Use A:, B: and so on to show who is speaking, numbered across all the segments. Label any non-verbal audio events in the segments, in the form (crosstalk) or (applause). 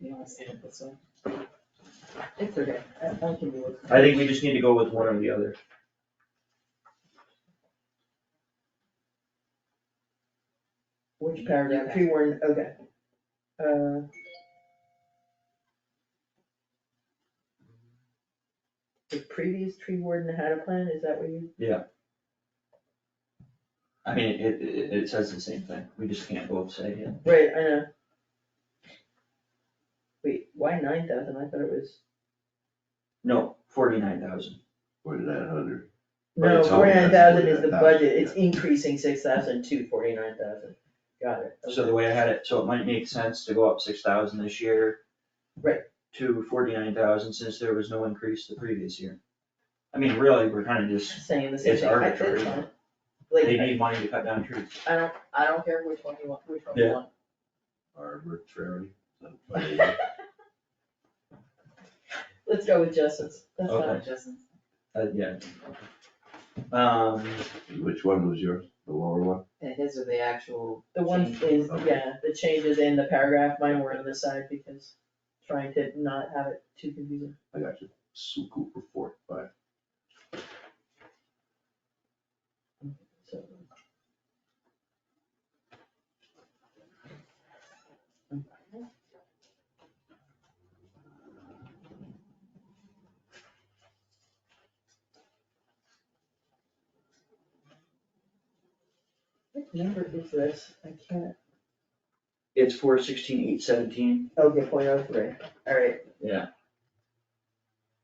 A: You wanna stand this way? It's okay, I I can do it.
B: I think we just need to go with one or the other.
A: Which paragraph, tree warden, okay. Uh. The previous tree warden had a plan, is that what you,
B: I mean, it, it, it says the same thing, we just can't both say it.
A: right, I know. Wait, why nine thousand, I thought it was,
B: No, forty-nine thousand.
C: Where's that hundred? But
A: no,
C: it's only-
A: forty-nine thousand is the
C: 49,000,
A: budget, it's increasing six thousand to forty-nine thousand, got it.
B: So the way I had it, so it might make sense to go up six thousand this year.
A: Right.
B: To forty-nine thousand since there was no increase the previous year. I mean, really, we're kind of just,
A: Saying the same
B: it's
A: thing, I did
B: arbitrary.
A: fine.
B: They
A: Like,
B: need money to cut down trees.
A: I don't, I don't care which one you want, which one
B: Yeah.
A: you want.
C: Arbitrary.
A: Let's go with Justin's, that's not
B: Okay.
A: Justin's.
B: Uh, yeah. Um,
C: (laughs) Which one was yours? The lower one?
D: And his are the actual.
A: The one
D: change.
A: is,
C: Okay.
A: yeah, the changes in the paragraph, mine were on this side because trying to not have it too confusing.
C: I got you. Suku for four, five.
A: So, What number is this? I can't.
B: it's four sixteen, eight seventeen,
A: Okay, point oh three, alright,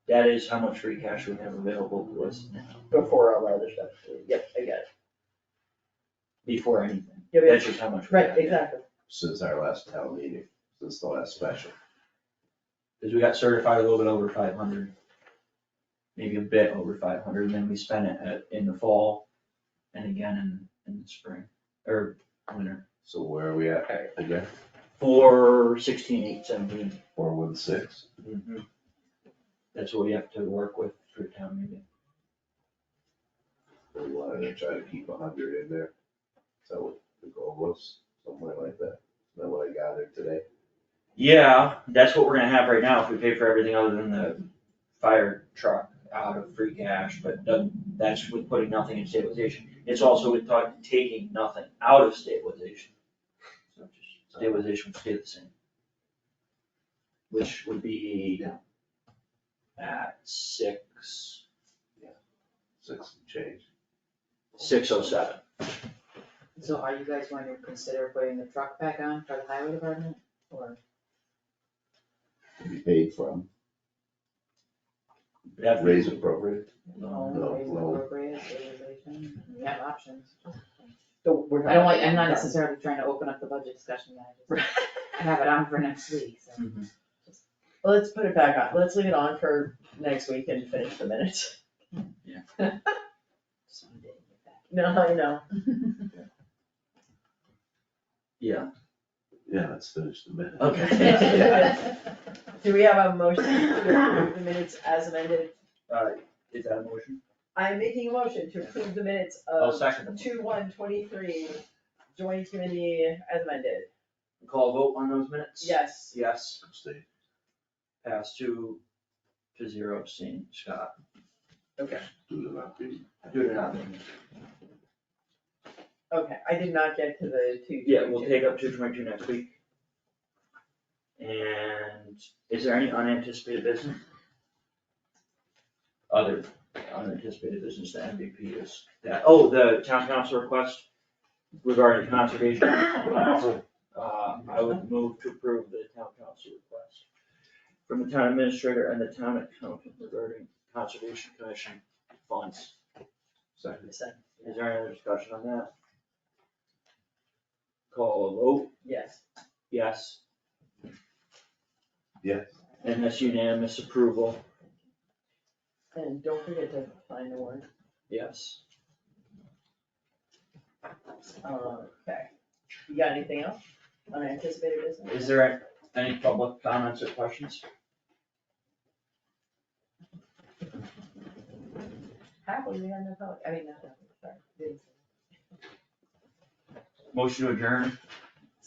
B: that is how much free cash we have available to us now,
A: before all the other stuff, yep, I got it.
B: before anything.
A: Yeah,
B: That's
A: yeah,
B: just how much we have.
A: Right, exactly,
C: Since our last town meeting, since the last special.
B: Cause we got certified a little bit over five hundred. Maybe a bit over five hundred, and then we spent it at, in the fall and again in, in the spring, or winter.
C: So where are we at
B: Okay.
C: again?
B: Four sixteen, eight seventeen.
C: Four one six?
B: That's what we have to work with for town meeting.
C: We wanted to try to keep a hundred in there. So the goal was somewhere like that. Is that what I gathered today?
B: Yeah, that's what we're gonna have right now if we pay for everything other than the fire truck out of free cash, but that- that's with putting nothing in stabilization. It's also with ta- taking nothing out of stabilization. So just Stabilization would stay the same. Which would be at six,
C: Six and change.
B: six oh seven.
D: So are you guys going to consider putting the truck back on for the highway department or?
C: To be paid from.
B: That-
C: Raise appropriate.
D: loan,
C: No,
D: raise
C: loan.
D: appropriate, stabilization? We have options.
A: so we're.
D: I don't like, I'm not necessarily trying to open up the budget discussion yet, I just, I have it on for next week, so.
A: (laughs) Well, Let's put it back on, let's leave it on for next week and finish the minutes. (laughs)
D: just wanted to get that.
A: No, I (laughs) know,
B: Yeah,
C: Yeah, let's finish the minute.
B: Okay.
A: (laughs) do we have a motion to approve the minutes as amended?
B: uh, is that a motion?
A: I'm making a motion to approve the minutes
B: I'll
A: of
B: second it.
A: two one twenty-three, joint committee as amended,
B: Call vote on those minutes?
A: yes.
B: Yes.
C: Abstain.
B: pass two to zero abstain, Scott.
C: Do the not be.
B: Do it not.
A: Okay, I did not get to the two.
B: Yeah, we'll take up two twenty-two next week. And is there any unanticipated business? Other unanticipated business, the MVP is that, oh, the town council request regarding conservation. Uh, I would move to approve the town council request from the town administrator and the town accountant regarding conservation commission funds.
C: Second.
B: Is there any other discussion on that? Call a vote,
A: Yes,
B: yes,
C: Yes.
B: and that's unanimous approval,
A: and don't forget to sign the warrant,
B: yes.
A: Uh, okay, you got anything else, unanticipated business?
B: Is there any public comments or questions?
A: Happily, we had no public, I mean, not that, sorry.
B: Motion to adjourn,